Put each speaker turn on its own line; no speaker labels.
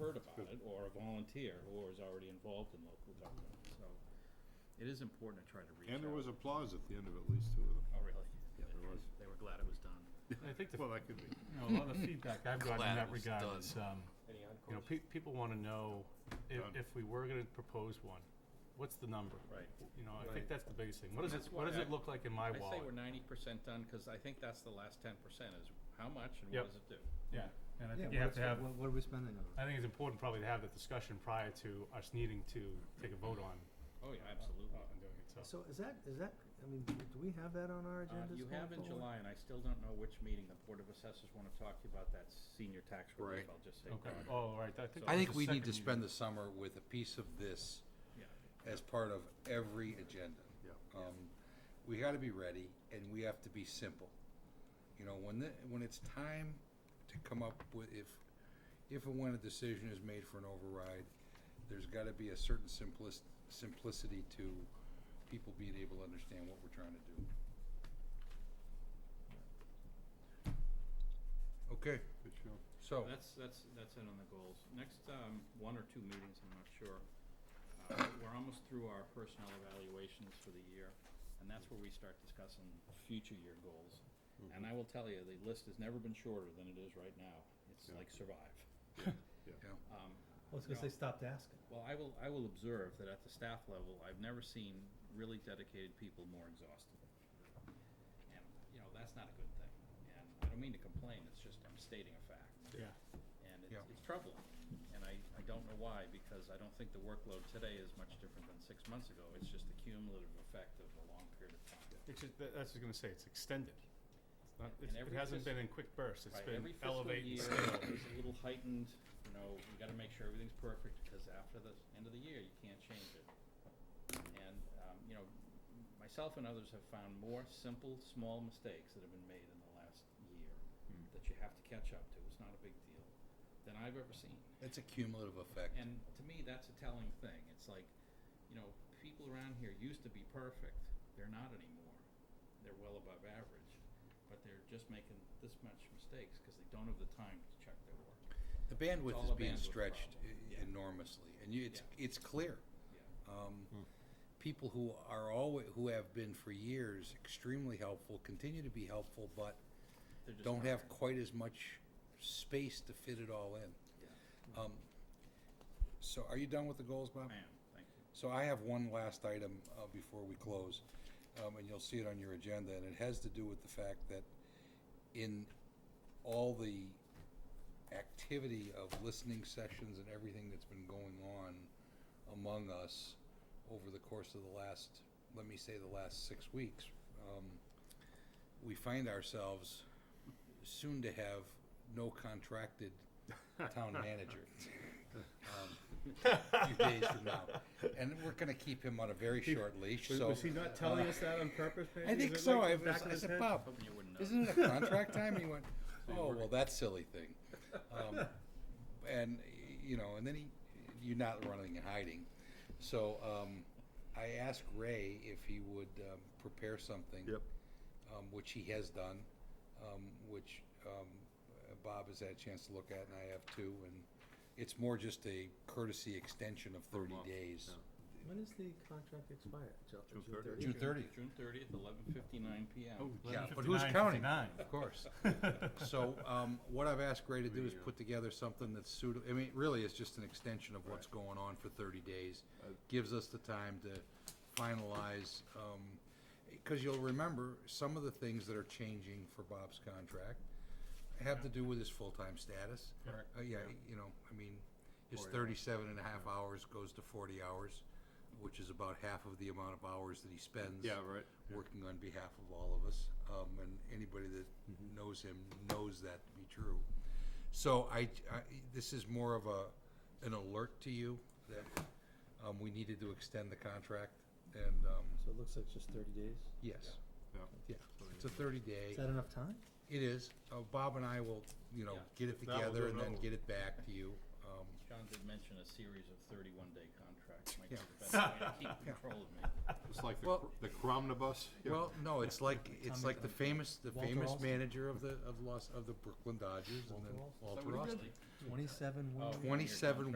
heard about it, or a volunteer who is already involved in local government, so it is important to try to reach out.
And there was applause at the end of at least two of them.
Oh, really?
Yeah, there was.
They were glad it was done.
I think the,
Well, that could be.
you know, a lot of the feedback I've gotten in
Glad it
that
was
regard
done.
is, um, you know, pe- people wanna know if,
Done.
if we were gonna propose one, what's the number?
Right.
You know, I
Right.
think that's the biggest thing. What does it,
That's
what does
why I-
it look like in my
I say we're
wallet?
ninety percent done, cause I think that's the last ten percent is how much and
Yep.
what does it do?
Yeah, and I
Yeah,
think you have
what's-
to have,
What what are we spending on?
I think it's important probably to have that discussion prior to us needing to take a vote on,
Oh, yeah, absolutely.
Uh,
on doing it, so.
So is that, is that, I mean, do do we have that on our
Uh,
agendas?
you
going
have in
forward?
July, and I still don't know which meeting, the Board of Assessors wanna talk to you about that senior tax relief,
Right.
I'll just say that.
Okay, oh, all right, I think.
So-
I
that was
think
the
we need to
second
spend the summer with a piece of this
Yeah.
as part of every agenda.
Yeah.
Um, we gotta be ready and we have to be simple. You know, when the, when it's time to come up with, if, if and when a decision is made for an override, there's gotta be a certain simplis- simplicity to people being able to understand what we're trying to do. Okay,
Good show.
so,
That's, that's, that's it on the goals. Next, um, one or two meetings, I'm not sure. Uh, We're almost through our personnel evaluations for the year, and that's where we start discussing future year goals.
Hmm.
And I will tell you, the list has never been shorter than it is right now. It's
Yeah.
like survive.
yeah,
Um,
Well, it's 'cause
No.
they stopped asking.
Well, I will, I will observe that at the staff level, I've never seen really dedicated people more exhausted. And, you know, that's not a good thing. And I don't mean to complain, it's just I'm stating a fact
Yeah,
and
Yeah.
it's, it's troubling. And I, I don't know why, because I don't think the workload today is much different than six months ago. It's just the cumulative effect of a long period of time.
it's just, that, that's just gonna say, it's extended. It's not,
And
it's, it
every
hasn't
fiscal-
been in quick bursts, it's
Right,
been
every fiscal
elevate and
year
scale.
is a little heightened, you know, you gotta make sure everything's perfect, because after the end of the year, you can't change it. And, um, you know, myself and others have found more simple, small mistakes that have been made in the last year
Hmm.
that you have to catch up to, it's not a big deal, than I've ever seen.
it's a cumulative effect.
And to me, that's a telling thing. It's like, you know, people around here used to be perfect. They're not anymore. They're well above average, but they're just making this much mistakes because they don't have the time to check their work. It's
The bandwidth
all a
is being
bandwidth
stretched
problem.
e-
Yeah.
enormously, and you, it's, it's clear.
Yeah.
Um,
Hmm.
People who are always, who have been for years extremely helpful, continue to be helpful, but
They're just
don't have
tired.
quite as much space to fit it all in.
Yeah.
Um, So are you done with the goals, Bob?
Man, thank you.
So I have one last item uh, before we close, um, and you'll see it on your agenda, and it has to do with the fact that in all the activity of listening sessions and everything that's been going on among us over the course of the last, let me say, the last six weeks, um, we find ourselves soon to have no contracted town manager. um, few days from now, and we're going to keep him on a very short leash. so
not
telling
us that on purpose,
I think so. I, was, I said, Bob,
Hoping you wouldn't uh, know.
isn't it a contract time? And he went, oh, well, that silly thing. Um, and, you know, and then he, you're not running and hiding. So um, I asked Ray if he would um, prepare something,
Yep.
um, which he has done, um, which um, uh, Bob has had a chance to look at, and I have too. And it's more just a courtesy extension of 30
month,
days.
yeah.
When does the contract expire? Ju-
June 30th.
June 30th.
June thirtieth, eleven fifty-nine PM.
Oh,
Yeah, but who's counting?
59.
Of course. So, um, what I've asked Gray to do is put together something that's suitable, I mean, it really is just an extension of what's going on for thirty days. Gives us the time to finalize, um, cause you'll remember, some of the things that are changing for Bob's contract have to do with his full-time status.
Correct.
Uh, yeah, you know, I mean, his
40 hours.
thirty-seven and a half hours goes to forty hours, which is about half of the amount of hours that he spends
Yeah, right.
working on behalf of all of us, um, and anybody that
Mm-hmm.
knows him knows that to be true. So I, I- this is more of a, an alert to you that, um, we needed to extend the contract, and, um,
So it looks like just thirty days?
yes,
Yeah.
yeah, Oh, it's a thirty day.
Is that enough time?
It is, uh, Bob and I will, you know,
Yeah.
get it
If not, we'll do
together and
another
then
one.
get it back to you, um. Um,
John did mention a series of thirty-one day contracts might be
Yeah.
the best way to keep
Yeah.
control of me.
It's like the
Well-
cr- the Cromnibus. you know.
Well, no, it's like, it's
Tommy
like the
Dunn.
famous, the
Walter
famous
Olson.
manager of the, of Los, of the Brooklyn Dodgers and
Walter
then
Olson.
Is that
Walter
what he
Austin.
did?
Twenty-seven
Oh,
women.
yeah, your
27